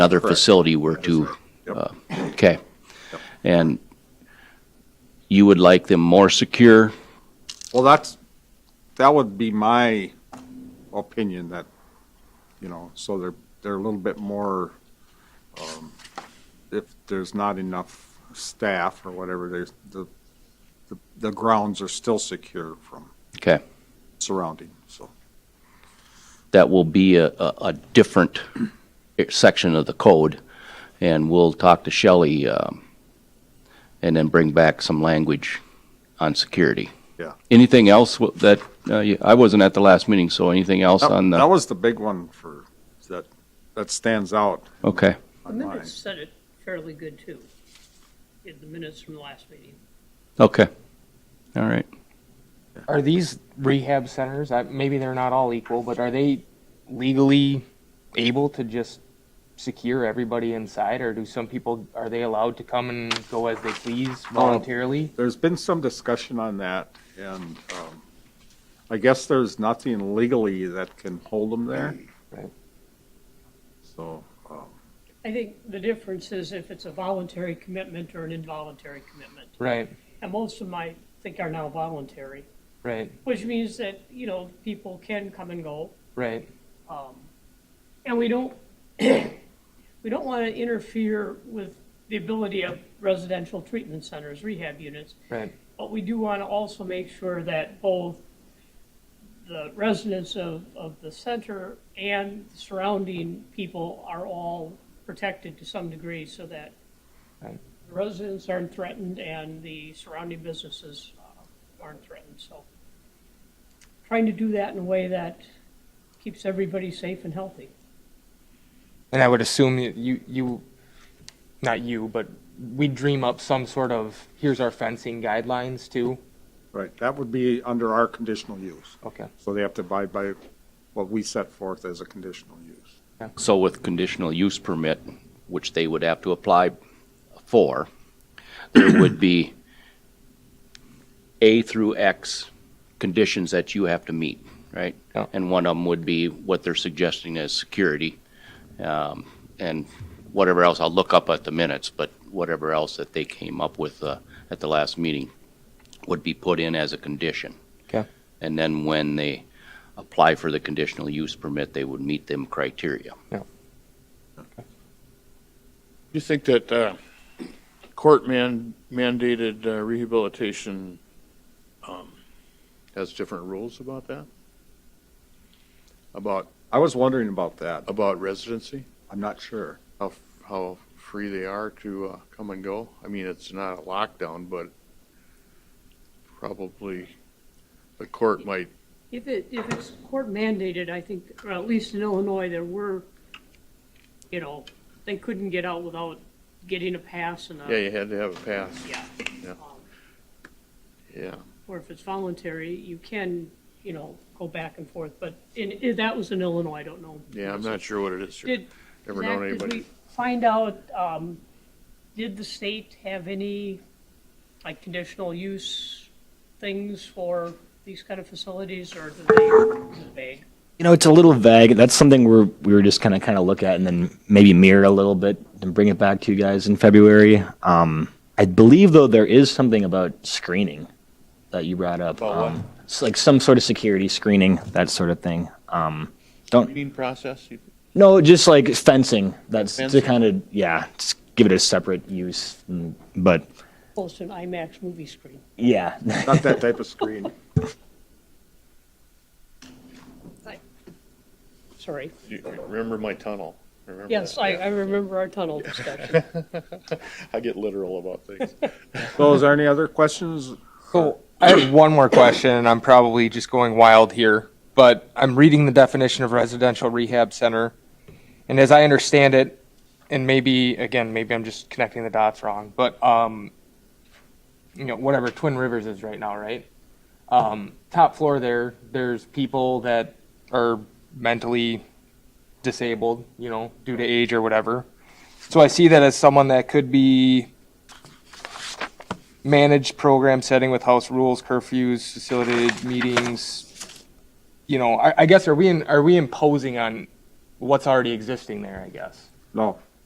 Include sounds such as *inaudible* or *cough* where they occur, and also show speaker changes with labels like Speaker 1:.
Speaker 1: another
Speaker 2: Correct.
Speaker 1: facility were
Speaker 2: That is
Speaker 1: to,
Speaker 2: right. Yep.
Speaker 1: uh, okay. And you would like them more secure?
Speaker 2: Well, that's, that would be my opinion that, you know, so they're, they're a little bit more, um, if there's not enough staff or whatever, there's, the, the- the grounds are still secure from
Speaker 1: Okay.
Speaker 2: surrounding, so.
Speaker 1: That will be a, a, a different section of the code. And we'll talk to Shelley, um, and then bring back some language on security.
Speaker 2: Yeah.
Speaker 1: Anything else wa- that, uh, you- I wasn't at the last meeting, so anything else
Speaker 2: That
Speaker 1: on
Speaker 2: that
Speaker 1: the,
Speaker 2: was the big one for, that, that stands out
Speaker 1: okay.
Speaker 3: The
Speaker 2: on mine.
Speaker 3: minutes said it fairly good, too. In the minutes from the last meeting.
Speaker 1: Okay. All right.
Speaker 4: Are these rehab centers? I, maybe they're not all equal, but are they legally able to just secure everybody inside, or do some people are they allowed to come and go as they please voluntarily?
Speaker 2: There's been some discussion on that, and um, I guess there's nothing legally that can hold them there.
Speaker 4: Right.
Speaker 2: So, um,
Speaker 3: I think the difference is if it's a voluntary commitment or an involuntary commitment.
Speaker 4: Right,
Speaker 3: And most of them, I think, are now voluntary,
Speaker 4: right,
Speaker 3: which means that, you know, people can come and go.
Speaker 4: right,
Speaker 3: And we don't, *coughs* we don't want to interfere with the ability of residential treatment centers, rehab units,
Speaker 4: right,
Speaker 3: But we do want to also make sure that both the residents of, of the center and surrounding people are all protected to some degree so that
Speaker 4: Right.
Speaker 3: the residents aren't threatened and the surrounding businesses uh, aren't threatened, so. Trying to do that in a way that keeps everybody safe and healthy.
Speaker 4: And I would assume you- you, you, not you, but we dream up some sort of here's our fencing guidelines too.
Speaker 2: right, that would be under our conditional use.
Speaker 4: Okay,
Speaker 2: So they have to abide by what we set forth as a conditional use.
Speaker 1: So with conditional use permit, which they would have to apply for, there would be A through X conditions that you have to meet, right?
Speaker 4: Yeah.
Speaker 1: And one of them would be what they're suggesting as security, um, and whatever else, I'll look up at the minutes, but whatever else that they came up with, uh, at the last meeting would be put in as a condition.
Speaker 4: Okay.
Speaker 1: And then when they apply for the conditional use permit, they would meet them criteria.
Speaker 5: You think that uh, court man mandated uh, rehabilitation um, has different rules about that? About,
Speaker 2: I was wondering about that.
Speaker 5: about residency,
Speaker 2: I'm not sure.
Speaker 5: how, how free they are to uh, come and go? I mean, it's not a lockdown, but probably the court might,
Speaker 3: If it, if it's court mandated, I think, or at least in Illinois, there were, you know, they couldn't get out without getting a pass and
Speaker 5: yeah,
Speaker 3: a,
Speaker 5: you had to have a pass,
Speaker 3: yeah.
Speaker 5: Yeah.
Speaker 3: Um,
Speaker 5: yeah.
Speaker 3: Or if it's voluntary, you can, you know, go back and forth, but in, in- that was in Illinois, I don't know.
Speaker 5: Yeah, I'm not sure what it is. here.
Speaker 3: Did,
Speaker 5: Never known
Speaker 3: Zach, did we
Speaker 5: anybody.
Speaker 3: find out, um, did the state have any, like, conditional use things for these kind of facilities, or did they, is it vague?
Speaker 6: You know, it's a little vague. That's something we're we were just kind of kind of look at and then maybe mirror a little bit and bring it back to you guys in February. Um, I believe though there is something about screening that you brought up.
Speaker 5: About what?
Speaker 6: um, it's like some sort of security screening, that sort of thing. Um, don't
Speaker 5: Meeting process, you-
Speaker 6: no, just like fencing. That's
Speaker 5: Fencing.
Speaker 6: to kind of yeah, just give it a separate use. mm, But
Speaker 3: close to an IMAX movie screen.
Speaker 6: yeah,
Speaker 2: Not that type of screen.
Speaker 3: Sorry.
Speaker 5: you remember my tunnel? Remember
Speaker 3: Yes,
Speaker 5: that?
Speaker 3: I, I remember our tunnel discussion.
Speaker 5: I get literal about things.
Speaker 2: So is there any other questions?
Speaker 4: So I have one more question, and I'm probably just going wild here, but I'm reading the definition of residential rehab center, and as I understand it, and maybe again, maybe I'm just connecting the dots wrong, but um, you know, whatever Twin Rivers is right now, right? Um, top floor there, there's people that are mentally disabled, you know, due to age or whatever. So I see that as someone that could be managed program setting with house rules, curfews, facilitated meetings. You know, I, I guess are we in, are we imposing on what's already existing there? I guess.
Speaker 2: No,